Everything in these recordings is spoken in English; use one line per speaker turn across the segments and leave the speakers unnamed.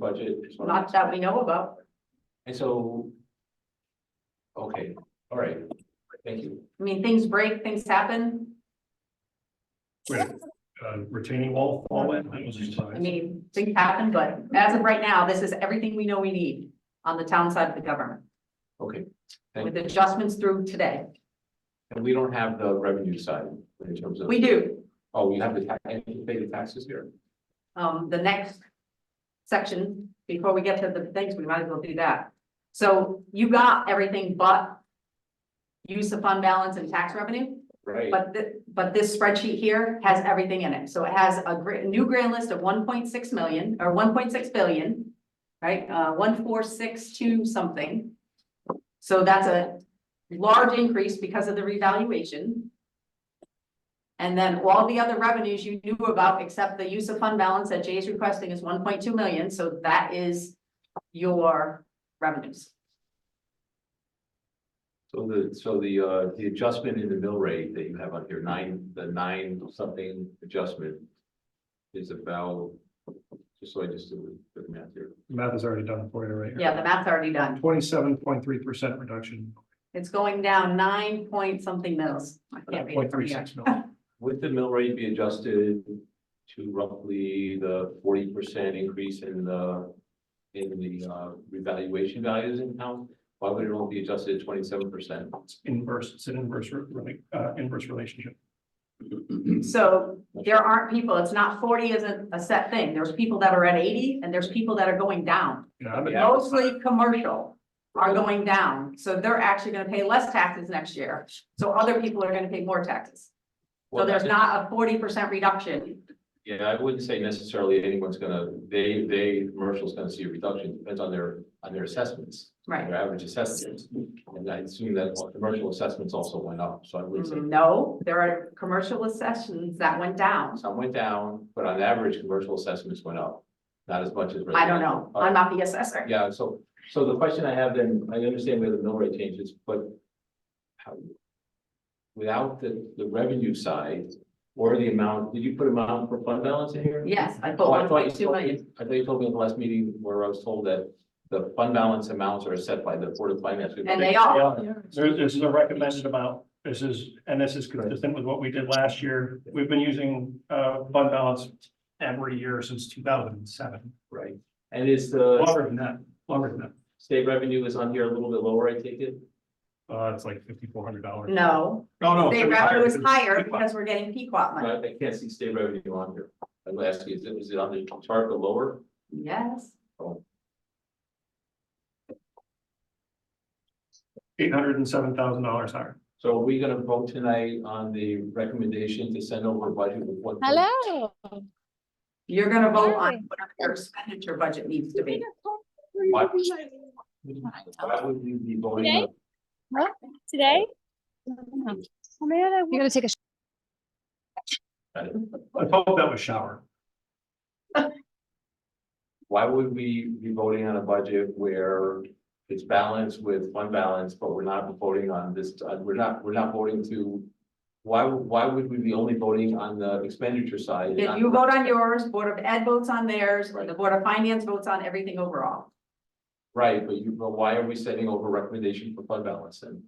budget?
not that we know about.
And so. Okay, all right, thank you.
I mean, things break, things happen.
Right, uh, retaining wall, fall in, that was just.
I mean, things happen, but as of right now, this is everything we know we need on the town side of the government
Okay,
with adjustments through today.
and we don't have the revenue side in terms of,
We do.
oh, we have the tax, and you pay the taxes here.
um, the next section, before we get to the things, we might as well do that. So you got everything but use of fund balance and tax revenue,
Right.
but thi- but this spreadsheet here has everything in it. So it has a gra- new grand list of one point six million or one point six billion, right? Uh, one four six two something. So that's a large increase because of the revaluation. And then all the other revenues you knew about, except the use of fund balance that Jay's requesting is one point two million, so that is your revenues.
So the, so the, uh, the adjustment in the mill rate that you have on here, nine, the nine something adjustment. Is about, just so I just do the math here,
Math is already done for you right here.
Yeah, the math's already done.
Twenty-seven point three percent reduction,
It's going down nine point something mils. I can't read it
point
from
three
here.
six million.
would the mill rate be adjusted to roughly the forty percent increase in the. In the uh revaluation values in town, why would it only be adjusted twenty-seven percent?
It's Inverse, it's an inverse, re- re- uh, inverse relationship.
So there aren't people, it's not forty isn't a set thing. There's people that are at eighty and there's people that are going down.
You know, I've been-
Yeah.
Mostly commercial are going down, so they're actually gonna pay less taxes next year. So other people are gonna pay more taxes. So there's not a forty percent reduction.
Yeah, I wouldn't say necessarily anyone's gonna, they, they, commercial's gonna see a reduction, depends on their, on their assessments.
Right.
Their average assessments, and I assume that all commercial assessments also went up, so I would
Mm-hmm.
say
Mm, No, there are commercial assessments that went down.
some went down, but on average, commercial assessments went up. Not as much as.
I don't know. I'm not the
residential.
assessor.
Yeah, so, so the question I have then, I understand where the mill rate changes, but how? Without the, the revenue side or the amount, did you put amount for fund balance in here?
Yes, I put
Oh,
one
I thought
point
you
two
told
million.
me, I thought you told me in the last meeting where I was told that the fund balance amounts are set by the Board of Finance.
And they are.
There- This is a recommended amount. This is, and this is consistent with what we did last year. We've been using uh fund balance every year since two thousand and seven.
Right, and is the
Longer than that, longer than that.
state revenue is on here a little bit lower, I take it?
Uh, it's like fifty-four hundred dollars.
No,
No, no.
they
Oh, it was
revenue is
than-
higher because we're getting Pequot money.
I, I can't see state revenue on here. I'm gonna ask you, is it, is it on the chart or lower?
Yes,
Eight hundred and seven thousand dollars higher.
So are we gonna vote tonight on the recommendation to send over a budget with what?
Hello.
you're gonna vote on
Really?
whatever your expenditure budget needs to be.
What? Why would we be voting? on-
Today? Oh, man, I. You're gonna take a.
I hope that was shower.
Why would we be voting on a budget where it's balanced with fund balance, but we're not voting on this, uh, we're not, we're not voting to. Why, why would we be only voting on the expenditure side? and
If
not-
you vote on yours, Board of Ed votes on theirs, or the Board of Finance votes on everything overall,
Right, but you, but why are we sending over recommendation for fund balance then?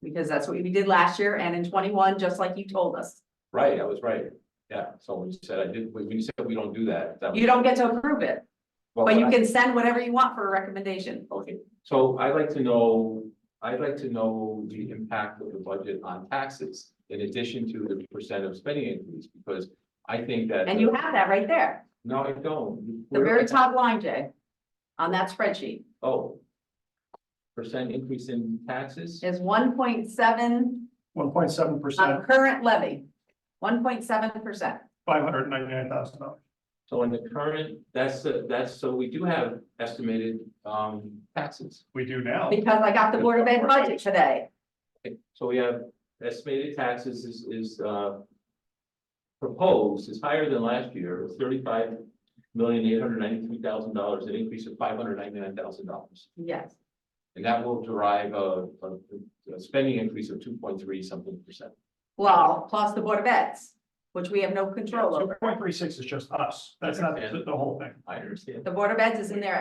because that's what we did last year and in twenty-one, just like you told us.
Right, I was right. Yeah, so when you said I did, when you said we don't do that, that was.
You don't get to approve it,
well,
but you
I-
can send whatever you want for a recommendation.
Okay, so I'd like to know, I'd like to know the impact of the budget on taxes in addition to the percent of spending increase, because I think that.
And you have that right there,
No, I don't.
the very top line, Jay, on that spreadsheet
Oh. Percent increase in taxes?
is one point seven
One point seven percent,
on current levy, one point seven percent.
five hundred and ninety-nine thousand dollars.
So in the current, that's, the- that's, so we do have estimated, um, taxes.
We do now.
Because I got the Board of Ed budget today,
Okay, so we have estimated taxes is, is, uh. Proposed is higher than last year, It's thirty-five million, eight hundred ninety-three thousand dollars, an increase of five hundred ninety-nine thousand dollars.
yes,
And that will derive a, a, a spending increase of two point three something percent.
well, plus the Board of Ed's, which we have no control
So
over.
point three six is just us, that's not the, the whole thing.
I understand.
The Board of Eds is in there